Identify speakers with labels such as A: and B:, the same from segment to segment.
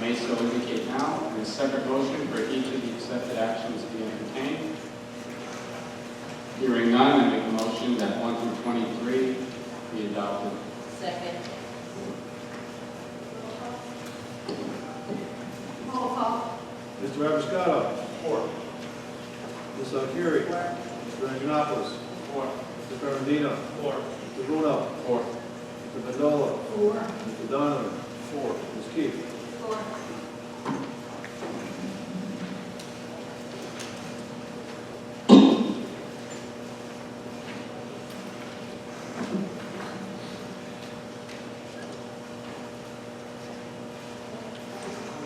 A: may so indicate now, and a separate motion for each of the accepted actions be entertained. Hearing none, I make a motion that 1 through 23 be adopted.
B: Second.
C: Roll call.
D: Mr. Abiscato. Four. Ms. Akhiri.
B: Four.
D: Mr. Anjanopoulos.
A: Four.
D: Mr. Ferrandino.
A: Four.
D: Mr. Bruno.
A: Four.
D: Mr. Vindola.
C: Four.
D: Mr. Donovan. Four. Ms. Keefe.
C: Four.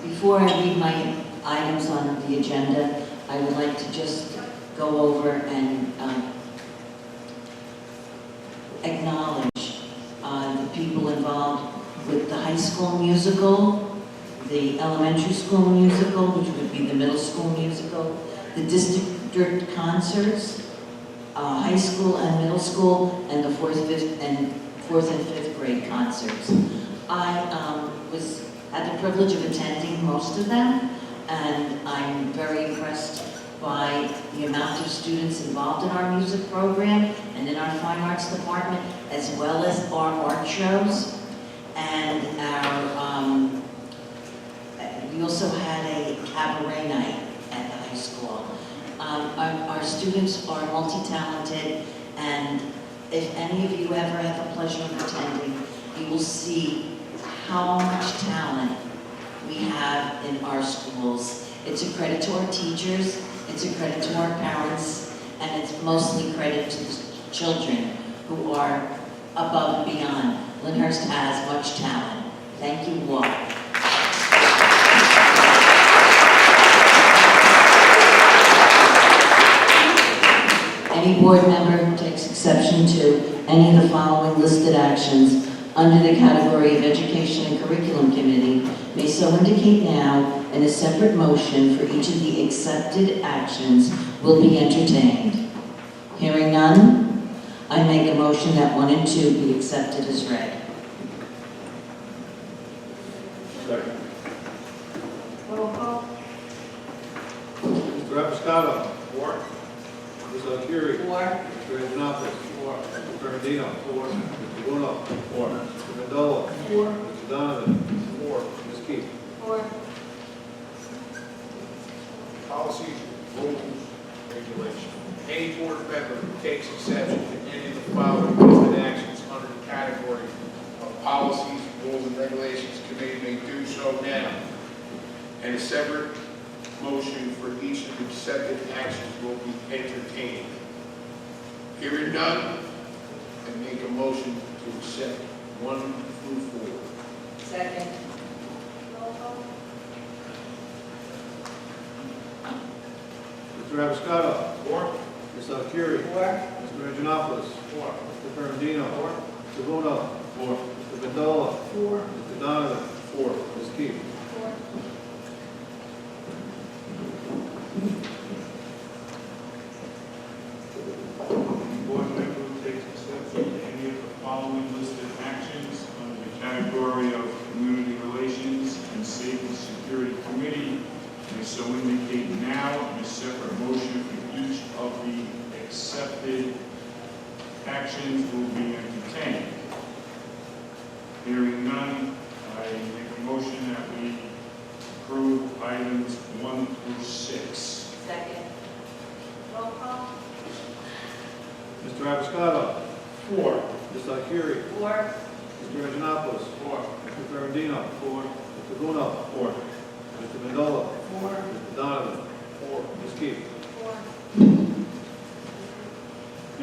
E: Before I read my items on the agenda, I would like to just go over and um, acknowledge uh, the people involved with the high school musical, the elementary school musical, which would be the middle school musical, the district concerts, uh, high school and middle school, and the fourth, fifth, and fourth and fifth grade concerts. I um, was, had the privilege of attending most of them, and I'm very impressed by the amount of students involved in our music program and in our fine arts department, as well as our art shows. And our, um, uh, we also had a cabaret night at the high school. Um, Our our students are multi-talented, and if any of you ever have the pleasure of attending, you will see how much talent we have in our schools. It's a credit to our teachers, it's a credit to our parents, and it's mostly credit to the children who are above and beyond. Lyndhurst has much talent. Thank you all. Any board member who takes exception to any of the following listed actions under the category of Education and Curriculum Committee may so indicate now, and a separate motion for each of the accepted actions will be entertained. Hearing none, I make a motion that one and two be accepted as read.
D: Second.
C: Roll call.
D: Mr. Abiscato. Four. Ms. Akhiri.
B: Four.
D: Mr. Anjanopoulos. Four. Mr. Ferrandino. Four. Mr. Bruno.
A: Four.
D: Mr. Vindola.
C: Four.
D: Mr. Donovan. Four. Ms. Keefe.
C: Four.
F: policies, rules, regulations. Any board member who takes exception to any of the following listed actions under the category of policies, rules, and regulations committee may do so now. And a separate motion for each of the accepted actions will be entertained. Hearing none, I make a motion to accept one through four.
B: Second.
C: Roll call.
D: Mr. Abiscato.
F: Four.
D: Ms. Akhiri.
B: Four.
D: Mr. Anjanopoulos.
F: Four.
D: Mr. Ferrandino. Four. Mr. Bruno.
A: Four.
D: Mr. Vindola.
C: Four.
D: Mr. Donovan. Four. Ms. Keefe.
C: Four.
G: Board member who takes exception to any of the following listed actions under the category of community relations and safety security committee may so indicate now in a separate motion for each of the accepted actions will be entertained. Hearing none, I make a motion that we approve items one through six.
B: Second.
C: Roll call.
D: Mr. Abiscato.
G: Four.
D: Ms. Akhiri.
B: Four.
D: Mr. Anjanopoulos.
G: Four.
D: Mr. Ferrandino. Four. Mr. Bruno.
G: Four.
D: Mr. Vindola.
C: Four.
D: Mr. Donovan. Four. Ms. Keefe.
C: Four.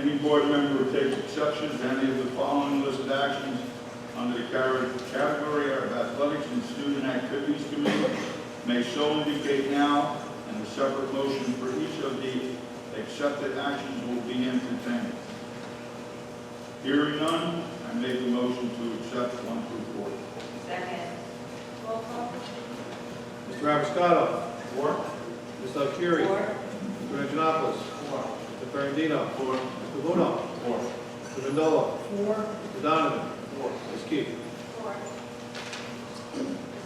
G: Any board member who takes exception to any of the following listed actions under the car- category of athletics and student activities committee may so indicate now, and a separate motion for each of the accepted actions will be entertained. Hearing none, I make the motion to accept one through four.
B: Second.
C: Roll call.
D: Mr. Abiscato.
G: Four?
D: Ms. Akhiri.
B: Four.
D: Mr. Anjanopoulos. Four. Mr. Ferrandino. Four. Mr. Bruno.
G: Four.
D: Mr. Vindola.
C: Four.
D: Mr. Donovan. Four. Ms. Keefe.